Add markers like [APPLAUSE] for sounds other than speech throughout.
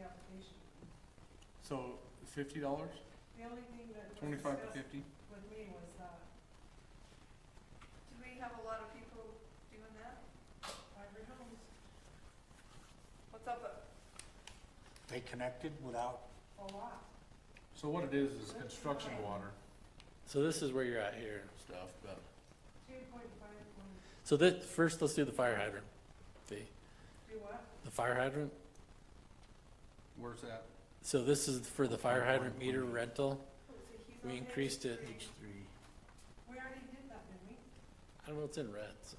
transportation. So fifty dollars, The only thing that was twenty-five to discussed fifty? with me was uh, that Did we have a lot of people doing that? fiber homes, What's up, uh, They connected without, a lot. So what it is, is construction water So this is where you're at here. stuff, but Two point five point, So this, first, let's do the fire hydrant fee. do what? The fire hydrant, where's that? so this is for the fire hydrant meter rental. who's he- he's on We page increased it. three. each three. We already did that, didn't we? I don't know, it's in red, so.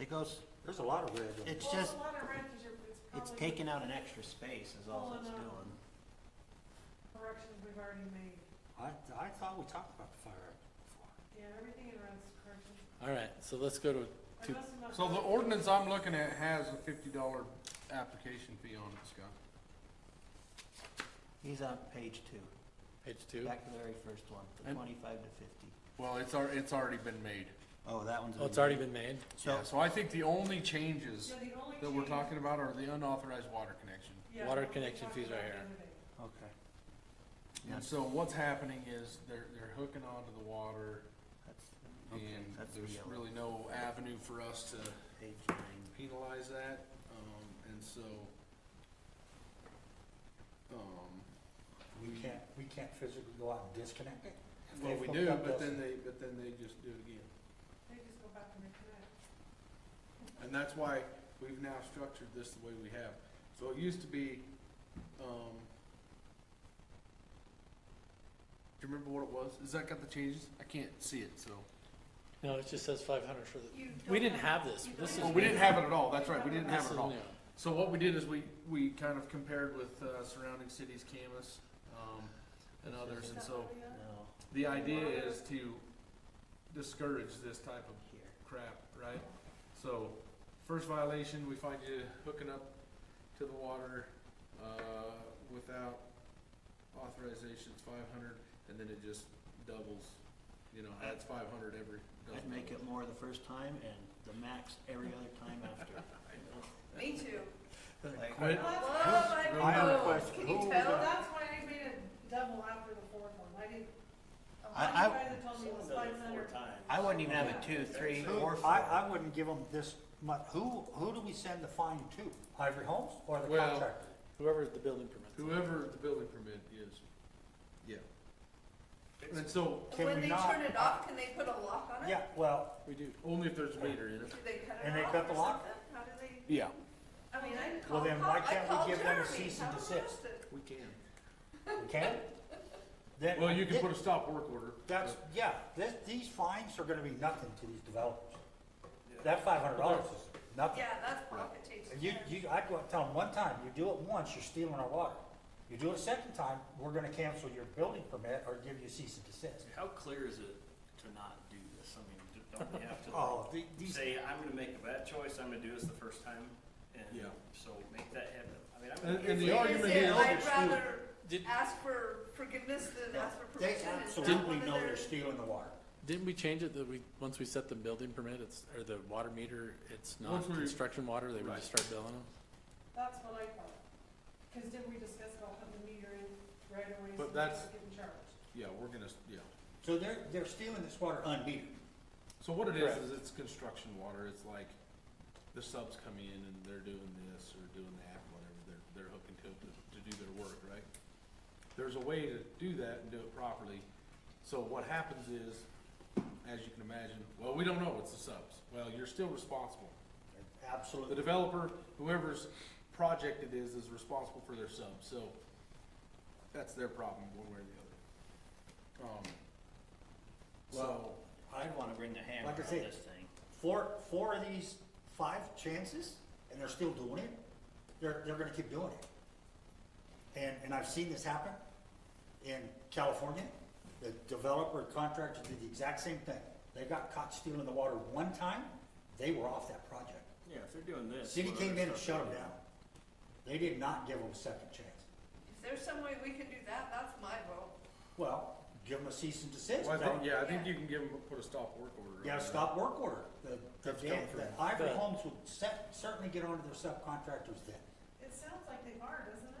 It goes, There's a lot of red. in it's Well, just, a lot of rent is your- it's it's probably taking out an extra space is all it's Pulling doing. out. Corrections we've already made. I, I thought we talked about the fire before. Yeah, everything in rent's corrections. All right, so let's go to, Two- Unless enough. So the ordinance I'm looking at has a fifty dollar application fee on it, Scott. He's on page two, page two. back to the very first one, the And- twenty-five to fifty. Well, it's al- it's already been made. Oh, that one's. Oh, it's already been made? So, Yeah, so I think the only changes Yeah, the only that we're change- talking about are the unauthorized water connection. yeah, Water what we connection talked fees about right the here. other day. okay, And so what's happening is they're, they're hooking onto the water that's, and okay, that's the there's yellow, really no avenue for us to page nine. penalize that, um, and so, um, We can't, we can't physically go out and disconnect it? If Well, they we hook do, up but us- then they, but then they just do it again. They just go back and reconnect. And that's why we've now structured this the way we have. So it used to be, um, do you remember what it was? Is that got the changes? I can't see it, so. No, it just says five hundred for You the, we don't didn't have have- this. you don't This is. Well, we didn't new. have it at all. That's right, we didn't have This it is at all. new. So what we did is we, we kind of compared with, uh, surrounding cities, Camus, um, and others, Is and that so what we got? No, the idea is to discourage this type of here, crap, right? So, first violation, we find you hooking up to the water, uh, without authorization, it's five hundred, and then it just doubles. You know, that's five hundred every. I'd make it more the first time and the max every other time [LAUGHS] after. Me too. Like, Quit. Well, that's- Love my I have a phones. question. Can you Who Well, tell? got- that's why I made it double after the fourth one, I didn't. oh, a I- lot of I- guys had told me it was five hundred. I wouldn't even have a two, three, or Who, four. I, I wouldn't give them this much, who, who do we send the fine to? Ivory Homes or the Well- contractor? Whoever the building permits. Whoever the building permit is, yeah. And so, Can When we they not- turn it off, can they put a lock on it? Yeah, well, We do. only if there's a meter in it. Do they cut And it they off cut the or lock? something? How do they? Yeah. I mean, I called. Well, then why Paul- I can't we called give them a Jeremy. cease Tell and him desist? that- We can. we can? Then- Well, you can put a stop work order. That's, yeah, this, these fines are gonna be nothing to these developers. That five hundred dollars is nothing. Yeah, that's pocket change. You, you, I go tell them one time, you do it once, you're stealing our water. You do it a second time, we're gonna cancel your building permit or give you cease and desist. How clear is it to not do this? I mean, d- don't we have to [LAUGHS] Oh, like, the- these, say, I'm gonna make a bad choice, I'm gonna do this the first time, and Yeah. so make that happen? I mean, I'm And, gonna. Is and the it- argument is it, here. I'd rather Did, ask for forgiveness than ask for they permission. Is that absolutely one of know their- they're stealing the water. didn't we change it that we, once we set the building permit, it's, or the water meter, it's not Once we- construction water, they would Right. just start billing them? That's what I thought, cause didn't we discuss about putting the meter in right away? But so that's- we're Getting charged. Yeah, we're gonna, yeah. So they're, they're stealing this water unmetered. So what it is, Correct. is it's construction water, it's like, the subs come in and they're doing this or doing that, whatever, they're, they're hooking to, it to, to do their work, right? There's a way to do that and do it properly, so what happens is, as you can imagine, well, we don't know, it's the subs, well, you're still responsible. The Absolutely. developer, whoever's project it is, is responsible for their sub, so that's their problem, one way or the other. Um, so, Well, I'd wanna bring the hammer Like I said, thing. four, four of these five chances, and they're still doing it, they're, they're gonna keep doing it. And, and I've seen this happen in California. The developer contractor did the exact same thing. They got caught stealing the water one time, they were off that project. Yeah, if they're doing this. City came in and shut them down. They did not give them a second chance. If there's some way we can do that, that's my vote. Well, give them a cease and desist. well, I think, They- yeah, I think you can give them, put a stop work order. on You gotta that. stop work order. The, the, That's coming the from- Ivory But- Homes would cer- certainly get onto their subcontractors then. It sounds like they are, doesn't